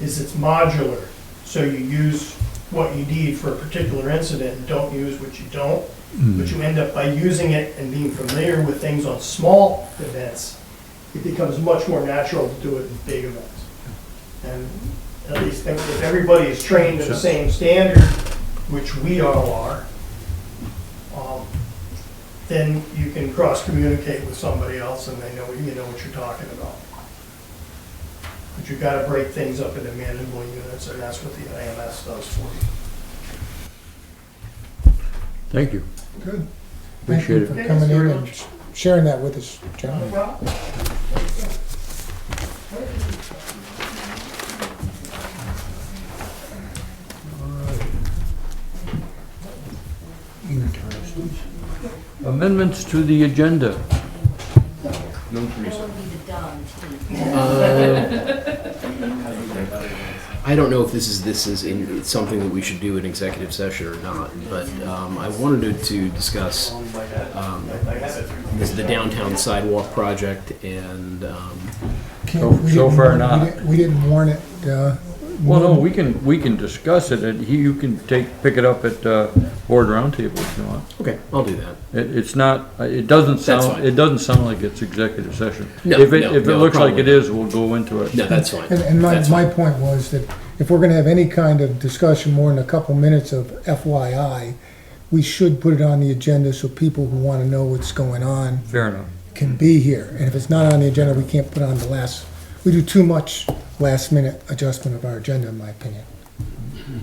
is it's modular. So you use what you need for a particular incident and don't use what you don't. But you end up by using it and being familiar with things on small events, it becomes much more natural to do it in big events. And at least if- if everybody is trained to the same standard, which we all are, um, then you can cross-communicate with somebody else and they know, you know what you're talking about. But you've got to break things up into manageable units, and that's what the IMS does for you. Thank you. Good. Thank Appreciate you it. for coming in and sh- sharing that with us, John. Amendments to the agenda. No, That Teresa. would be the dumb team. I don't know if this is, this is in, it's something that we should do in executive session or not, but um, I wanted to discuss um, this- the downtown sidewalk project and, um, So- so far not. We didn't warn it, uh. Well, no, we can, we can discuss it, and he- you can take, pick it up at uh, Board Roundtable if you want. okay, I'll do that. It, it's not, uh, it doesn't sound, fine. it doesn't sound like it's executive session. No, If it, no, if it no, looks like it probably. is, we'll go into it. No, that's fine. And, and my, That's my fine. point was that if we're gonna have any kind of discussion more than a couple minutes of FYI, we should put it on the agenda so people who wanna know what's going on Fair enough. can be here. And if it's not on the agenda, we can't put it on the last, we do too much last minute adjustment of our agenda, in my opinion.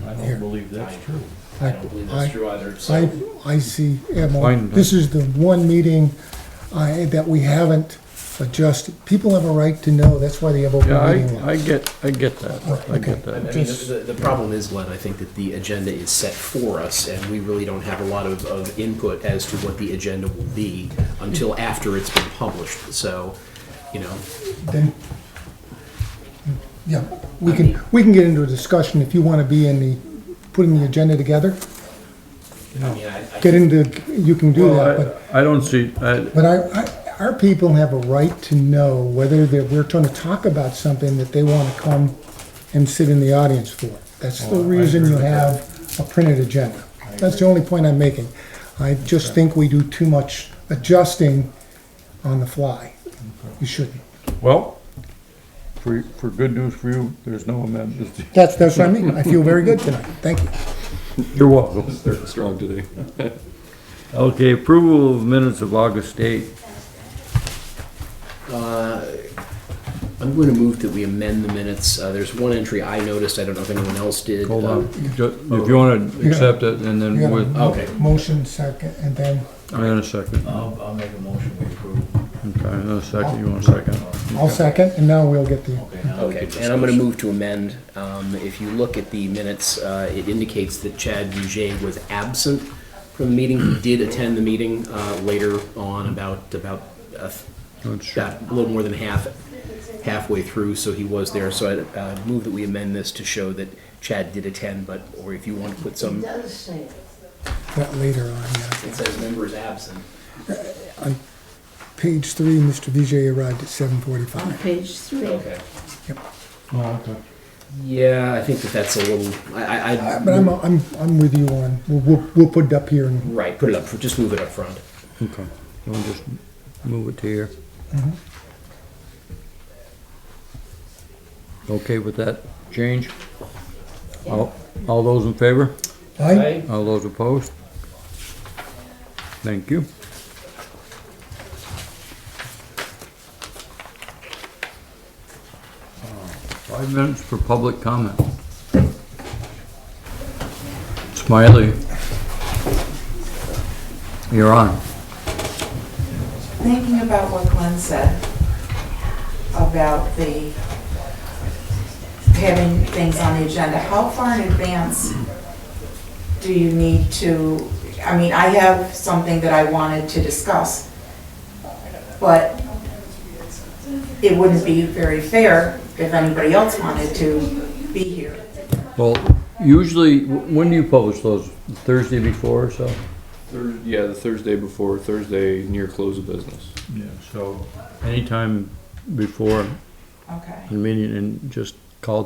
I Here. don't believe that's true. I don't believe I- that's true either, I, so. I see, yeah, Mo, Fine. this is the one meeting I, that we haven't adjusted. People have a right to know, that's why they have open Yeah, meeting I, law. I get, I get that, I get I that. mean, Just- the, the problem is, Len, I think that the agenda is set for us, and we really don't have a lot of, of input as to what the agenda will be until after it's been published, so, you know, Then, yeah, we can, we can get into a discussion if you wanna be in the, putting the agenda together. I mean, I, I Get into, you can do that, but Well, I I don't see, I, But I, I, our people have a right to know whether that we're trying to talk about something that they want to come and sit in the audience for. That's the reason you have a printed agenda. That's the only point I'm making. I just think we do too much adjusting on the fly. You shouldn't. well, for, for good news for you, there's no amendments. That's, that's what I mean. I feel very good tonight. Thank you. You're welcome. Starting strong today. Okay, approval of minutes of August 8th. Uh, I'm going to move that we amend the minutes. Uh, There's one entry I noticed, I don't know if anyone else did. Hold on, Um, Ju- if you wanna accept it, and You then got a with, mo- Okay. Motion second, and then I in a second, okay, I'll, I'll make a motion we approve. in a second, you want a second? I'll second, and now we'll get the, Okay, now we Okay, can and I'm going to discuss. move to amend. Um, If you look at the minutes, uh, it indicates that Chad Bujay was absent from the meeting. He did attend the meeting uh, later on, about, about, uh, That's true. about a little more than half, halfway through, so he was there. So I uh, move that we amend this to show that Chad did attend, but, or if you want to put It some, does say it. that later on, yeah. it says members absent. Page three, Mr. Vijay arrived at seven on forty-five. page three. Okay. Oh, okay. Yeah, I think that that's a little, I, I. I- Uh, But I'm, I'm, I'm with you on, we'll- we'll, we'll put it up here and Right, put it up, just move it up front. Okay, I'll just move it to here. Mm-hmm. Okay with that change? All, all those in favor? I, All those opposed? Thank you. Uh, Five minutes for public comment. Smiley. You're on. thinking about what Glenn said about the having things on the agenda, how far in advance do you need to, I mean, I have something that I wanted to discuss, but it wouldn't be very fair if anybody else wanted to be here. Well, usually, wh- when do you publish those? Thursday before or so? Thurs yeah, the Thursday before, Thursday near close of business. Yeah, so. Anytime before Okay. the meeting and just call